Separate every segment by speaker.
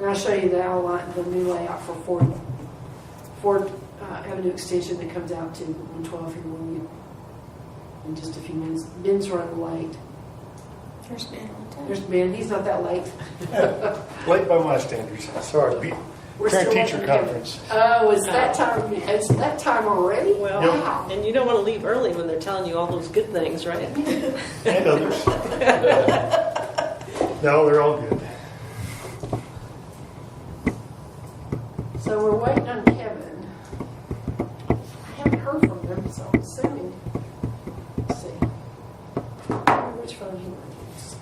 Speaker 1: gonna show you the outline, the new layout for Ford, Ford uh, Avenue Extension that comes out to one twelve here William in just a few minutes. Ben's running late.
Speaker 2: There's been a lot
Speaker 1: There's Ben, he's not that late.
Speaker 3: Late by my standards, sorry.
Speaker 1: We're
Speaker 3: Parent
Speaker 1: still
Speaker 3: teacher
Speaker 1: working.
Speaker 3: conference.
Speaker 1: Oh, it's that time, it's that time already?
Speaker 4: Well,
Speaker 1: Wow.
Speaker 4: and you don't want to leave early when they're telling you all those good things, right?
Speaker 3: And others. No, they're all good.
Speaker 1: So we're waiting on Kevin. I haven't heard from him, so I'm assuming. Let's see. I wonder Which phone he might use.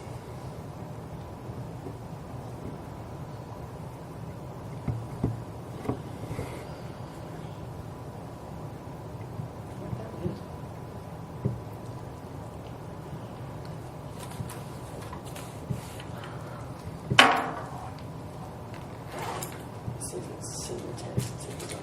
Speaker 1: Like that one. See if it's send a text, see if it's on.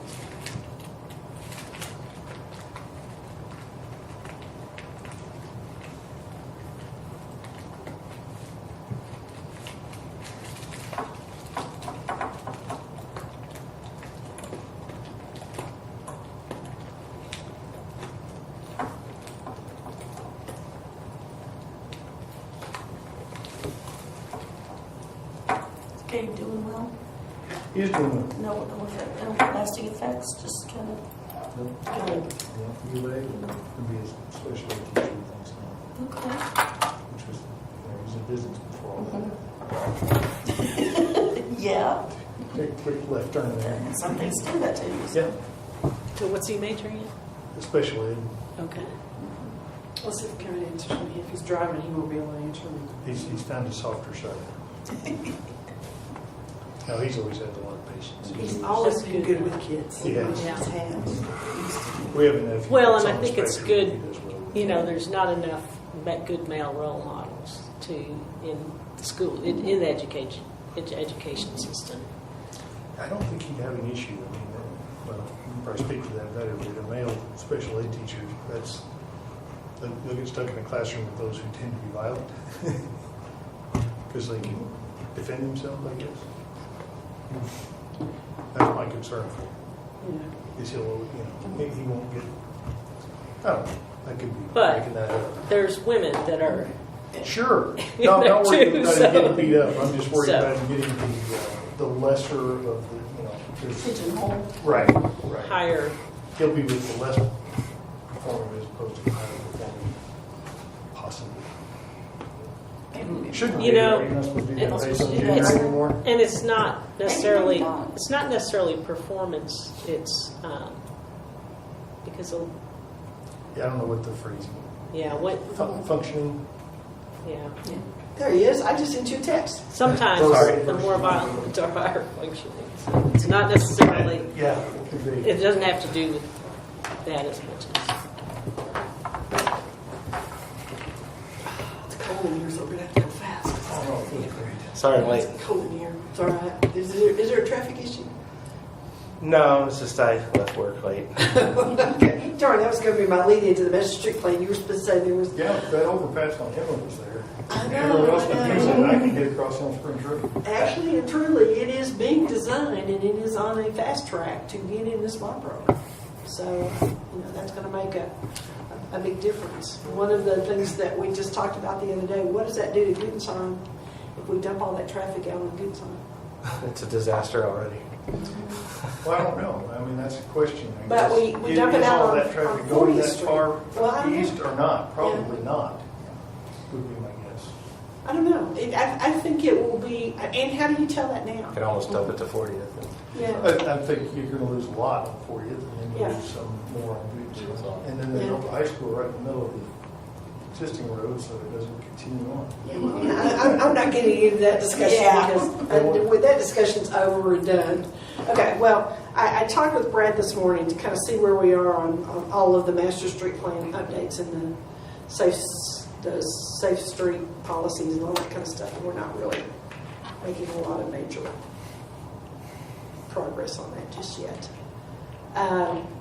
Speaker 2: of Gabe doing well.
Speaker 3: He's doing well.
Speaker 2: No, no effect, no lasting effects, just kind of, good.
Speaker 5: You lay, and be a special ed teacher with us now,
Speaker 2: Okay.
Speaker 5: which was, there was a business before all
Speaker 3: Mm-hmm.
Speaker 5: that.
Speaker 2: Yeah,
Speaker 5: Take a quick left turn there.
Speaker 2: and some things do that to you. so-
Speaker 5: Yeah,
Speaker 4: So what's he majoring in?
Speaker 3: Special ed,
Speaker 4: Okay.
Speaker 1: Let's see if Kevin answers me. If he's driving, he won't be able to answer me.
Speaker 3: he's, he's found a softer side. No, he's always had a lot of patience.
Speaker 1: He's always been good with kids.
Speaker 3: He has.
Speaker 4: Yeah.
Speaker 3: We have a nephew.
Speaker 4: Well,
Speaker 3: that's
Speaker 4: and I
Speaker 3: on
Speaker 4: think it's
Speaker 3: spectrum,
Speaker 4: good,
Speaker 3: he does well.
Speaker 4: You know, there's not enough ma- good male role models to, in school, in, in the education, edu- education system.
Speaker 3: I don't think he'd have an issue. I mean, that- well, you can probably speak for that better, but a male special ed teacher, that's, they'll they'll get stuck in a classroom with those who tend to be violent. Because they can defend themselves, I guess. That's my concern for him,
Speaker 1: Yeah.
Speaker 3: is he'll, you know, he he won't get, I don't know, that could be
Speaker 4: But-
Speaker 3: making that up.
Speaker 4: There's women that are,
Speaker 3: Sure. No, I'm not worried
Speaker 4: Too,
Speaker 3: about
Speaker 4: so-
Speaker 3: him getting beat up. I'm just worried
Speaker 4: So.
Speaker 3: about him getting the, uh, the lesser of the, you know, because-
Speaker 2: Pigeonhole.
Speaker 3: right, right.
Speaker 4: higher,
Speaker 3: He'll be with the less performing as opposed to the higher performing, possibly. Shouldn't
Speaker 4: You
Speaker 3: be,
Speaker 4: know,
Speaker 3: right? You're not supposed to do
Speaker 4: it's-
Speaker 3: that based on
Speaker 2: it's-
Speaker 3: gender anymore.
Speaker 4: and it's not necessarily,
Speaker 2: don't.
Speaker 4: it's not necessarily performance, it's, um, because, of-
Speaker 3: Yeah, I don't know what the phrase,
Speaker 4: yeah, what,
Speaker 3: fun- functioning,
Speaker 4: yeah.
Speaker 1: There he is. I just sent you a text.
Speaker 3: Sorry.
Speaker 4: Sometimes the more violent are higher functioning. So It's not necessarily,
Speaker 3: yeah, it could be.
Speaker 4: it doesn't have to do with that as much as,
Speaker 1: It's cold in here, so we're gonna have to go fast.
Speaker 3: I don't know, it feels Oh, great.
Speaker 6: Sorry, I'm late.
Speaker 1: It's cold in here. It's all right. Is there, is there a traffic issue?
Speaker 6: No, it's just I left work late.
Speaker 1: Okay. Darn, that was gonna be my lead into the master trick plan. You were supposed to say there was.
Speaker 3: Yeah, that overpass on Hemlock was there.
Speaker 1: I
Speaker 3: Everyone
Speaker 1: know,
Speaker 3: else
Speaker 1: I
Speaker 3: can use it,
Speaker 1: know.
Speaker 3: and I can get across on Spring Creek.
Speaker 1: Actually and truly, it is being designed and it is on a fast track to get in this library. So, you know, that's gonna make a, a big difference. One of the things that we just talked about the other day, what does that do to Goodsong if we dump all that traffic out on Goodsong?
Speaker 6: It's a disaster already.
Speaker 3: Well, I don't know, I mean, that's a question, I guess.
Speaker 1: But we- we
Speaker 3: Is-
Speaker 1: dump it out
Speaker 3: Is all
Speaker 1: on-
Speaker 3: that
Speaker 1: on
Speaker 3: traffic
Speaker 1: 40th
Speaker 3: going that
Speaker 1: Street.
Speaker 3: far
Speaker 1: Well, I don't know.
Speaker 3: east or not? Probably not, would be my guess.
Speaker 1: I don't know. It, I, I think it will be, and how do you tell that now?
Speaker 6: I can almost dump it to 40th.
Speaker 1: Yeah.
Speaker 3: I, I think you're gonna lose a lot on Fortieth, and then you
Speaker 1: Yeah.
Speaker 3: lose some more on Beach.
Speaker 6: So-
Speaker 3: And then they
Speaker 1: Yeah.
Speaker 3: built the high school right in the middle of the existing road, so it doesn't continue on.
Speaker 1: Yeah, well, I, I'm- I'm not getting into that discussion
Speaker 2: Yeah.
Speaker 1: because uh, with that discussion's over and done. Okay, well, I, I talked with Brad this morning to kind of see where we are on, on all of the master street plan updates and the safe, s- the safe street policies and all that kind of stuff. And we're not really making a lot of major progress on that just yet. Um,